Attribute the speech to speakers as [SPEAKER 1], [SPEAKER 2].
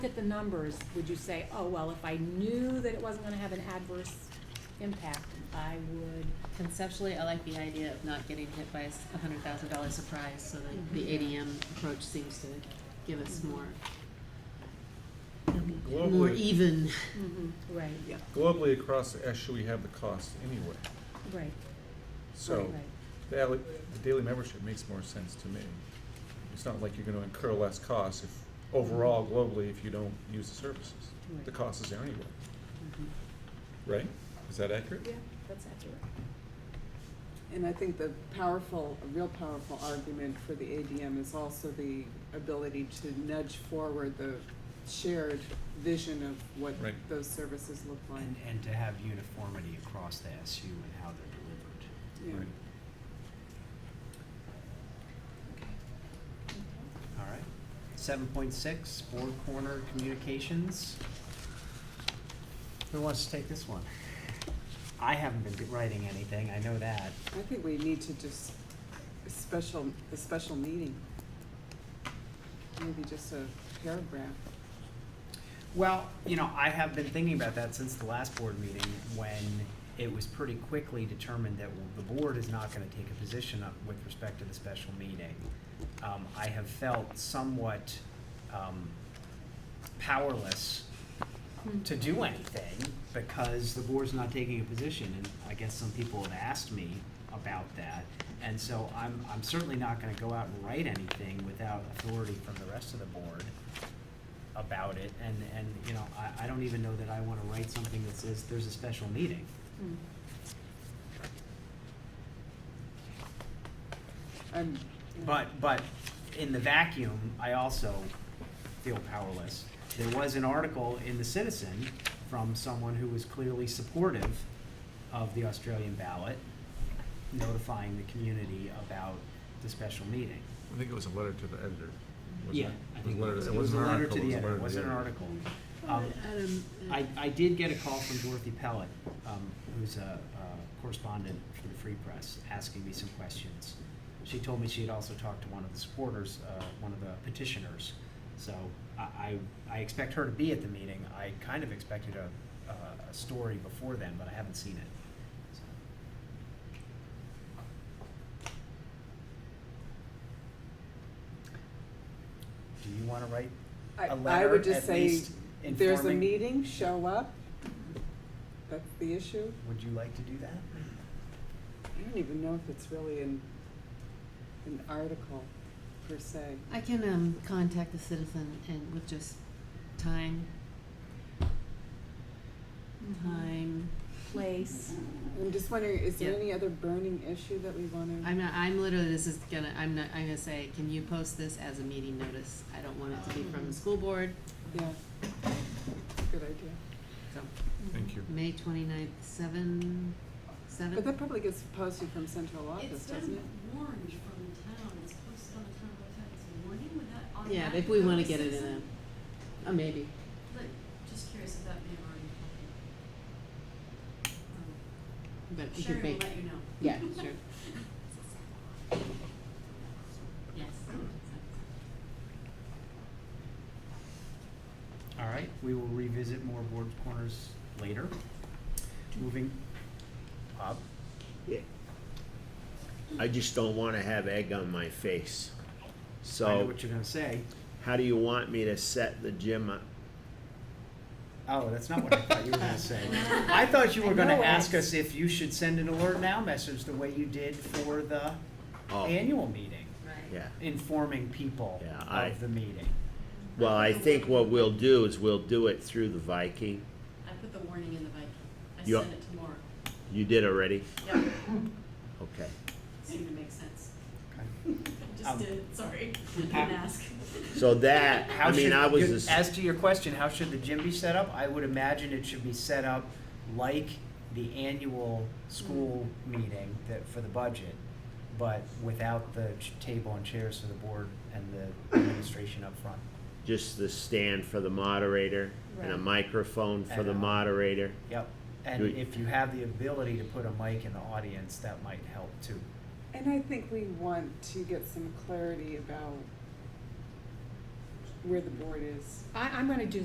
[SPEAKER 1] at the numbers, would you say, oh, well, if I knew that it wasn't gonna have an adverse impact, I would,
[SPEAKER 2] Conceptually, I like the idea of not getting hit by a s- a hundred thousand dollar surprise, so that the ADM approach seems to give us more, more
[SPEAKER 3] Globally,
[SPEAKER 2] even.
[SPEAKER 1] right,
[SPEAKER 3] globally across the issue, we have the cost anyway.
[SPEAKER 1] right, right,
[SPEAKER 3] So the daily, the daily membership makes more sense to me. It's not like you're gonna incur less costs if, overall
[SPEAKER 4] Mm-hmm.
[SPEAKER 3] globally, if you don't use the services.
[SPEAKER 1] Right.
[SPEAKER 3] The cost is there anyway, right? Is that accurate?
[SPEAKER 5] Yeah,
[SPEAKER 1] That's accurate.
[SPEAKER 5] and I think the powerful, a real powerful argument for the ADM is also the ability to nudge forward the shared vision of what
[SPEAKER 3] Right.
[SPEAKER 5] those services look like.
[SPEAKER 4] And, and to have uniformity across the SU and how they're
[SPEAKER 5] Yeah.
[SPEAKER 3] Right.
[SPEAKER 4] delivered. All right. Seven point six, Board Corner Communications. Who wants to take this one? I haven't been writing anything, I know that.
[SPEAKER 5] I think we need to just, a special, a special meeting. Maybe just a paragraph.
[SPEAKER 4] Well, you know, I have been thinking about that since the last board meeting, when it was pretty quickly determined that the board is not gonna take a position up with respect to the special meeting. Um, I have felt somewhat, um, powerless to do anything because the board's not taking a position, and I guess some people have asked me about that. And so I'm, I'm certainly not gonna go out and write anything without authority from the rest of the board about it, and, and, you know, I, I don't even know that I wanna write something that says there's a special meeting.
[SPEAKER 1] Mm.
[SPEAKER 5] I'm.
[SPEAKER 4] But, but in the vacuum, I also feel powerless. There was an article in The Citizen from someone who was clearly supportive of the Australian ballot, notifying the community about the special meeting.
[SPEAKER 3] I think it was a letter to the editor. wasn't
[SPEAKER 4] Yeah,
[SPEAKER 3] it?
[SPEAKER 4] I
[SPEAKER 3] It
[SPEAKER 4] think
[SPEAKER 3] was a letter-
[SPEAKER 4] it was a
[SPEAKER 3] an
[SPEAKER 4] letter
[SPEAKER 3] article,
[SPEAKER 4] to the editor,
[SPEAKER 3] letter
[SPEAKER 4] it
[SPEAKER 3] to
[SPEAKER 4] wasn't an
[SPEAKER 3] editor.
[SPEAKER 4] article. Um,
[SPEAKER 2] Adam,
[SPEAKER 4] I, I did get a call from Dorothy Pellet, um, who's a, a correspondent for the Free Press, asking me some questions. She told me she had also talked to one of the supporters, uh, one of the petitioners. So I, I, I expect her to be at the meeting. I kind of expected a, a, a story before then, but I haven't seen it. So, Do you wanna write
[SPEAKER 5] I-
[SPEAKER 4] a
[SPEAKER 5] I
[SPEAKER 4] letter
[SPEAKER 5] would
[SPEAKER 4] at
[SPEAKER 5] just say,
[SPEAKER 4] least
[SPEAKER 5] there's a
[SPEAKER 4] informing-
[SPEAKER 5] meeting, show up. That's the issue.
[SPEAKER 4] Would you like to do that?
[SPEAKER 5] I don't even know if it's really an, an article per se.
[SPEAKER 2] I can, um, contact the citizen and with just time, Mm-hmm. time.
[SPEAKER 1] Place,
[SPEAKER 5] I'm just wondering, is there
[SPEAKER 2] Yeah.
[SPEAKER 5] any other burning issue that we want to?
[SPEAKER 2] I'm not, I'm literally, this is gonna, I'm not, I'm gonna say, can you post this as a meeting notice? I don't want it to be from the school board,
[SPEAKER 5] Yeah. Good idea.
[SPEAKER 2] so,
[SPEAKER 3] Thank you.
[SPEAKER 2] May twenty-ninth, seven, seven?
[SPEAKER 5] But that probably gets posted from central office,
[SPEAKER 6] It's
[SPEAKER 5] doesn't
[SPEAKER 6] been
[SPEAKER 5] it?
[SPEAKER 6] warned from the town, it's posted on the town website, it's a warning, would that automatically?
[SPEAKER 2] Yeah, if we
[SPEAKER 6] go
[SPEAKER 2] wanna
[SPEAKER 6] to
[SPEAKER 2] get it in
[SPEAKER 6] citizen?
[SPEAKER 2] a, a maybe.
[SPEAKER 6] Like, just curious if that may have already happened. Um,
[SPEAKER 2] But it
[SPEAKER 6] Sherry
[SPEAKER 2] could
[SPEAKER 6] will
[SPEAKER 2] be.
[SPEAKER 6] let you know.
[SPEAKER 2] Yeah, sure. Yes.
[SPEAKER 4] All right, we will revisit more board corners later. Moving up.
[SPEAKER 7] Yeah. I just don't want to have egg on my face.
[SPEAKER 4] I know
[SPEAKER 7] So,
[SPEAKER 4] what you're gonna say.
[SPEAKER 7] how do you want me to set the gym up?
[SPEAKER 4] Oh, that's not what I thought you were gonna say. I thought you were gonna ask us if you should send an alert now message the way you did for the
[SPEAKER 7] Oh.
[SPEAKER 4] annual meeting,
[SPEAKER 7] Yeah.
[SPEAKER 4] informing people
[SPEAKER 7] Yeah, I-
[SPEAKER 4] of the meeting.
[SPEAKER 7] Well, I think what we'll do is we'll do it through the Viking.
[SPEAKER 6] I put the warning in the Viking, I
[SPEAKER 7] You-
[SPEAKER 6] sent it tomorrow,
[SPEAKER 7] You did already?
[SPEAKER 6] yeah,
[SPEAKER 7] Okay.
[SPEAKER 6] seemed to make sense,
[SPEAKER 4] Okay. Um,
[SPEAKER 6] just did, sorry, didn't
[SPEAKER 4] how-
[SPEAKER 6] ask.
[SPEAKER 7] So that,
[SPEAKER 4] How
[SPEAKER 7] I mean,
[SPEAKER 4] should-
[SPEAKER 7] I was,
[SPEAKER 4] good-
[SPEAKER 7] as-
[SPEAKER 4] As to your question, how should the gym be set up? I would imagine it should be set up like the annual school meeting that, for the budget, but without the ch- table and chairs for the board and the administration up front.
[SPEAKER 7] just the stand for the moderator and a
[SPEAKER 1] Right.
[SPEAKER 7] microphone for
[SPEAKER 4] And uh,
[SPEAKER 7] the
[SPEAKER 4] a-
[SPEAKER 7] moderator.
[SPEAKER 4] Yep, and
[SPEAKER 7] Good.
[SPEAKER 4] if you have the ability to put a mic in the audience, that might help too.
[SPEAKER 5] And I think we want to get some clarity about
[SPEAKER 8] where the board is.
[SPEAKER 5] I, I'm gonna do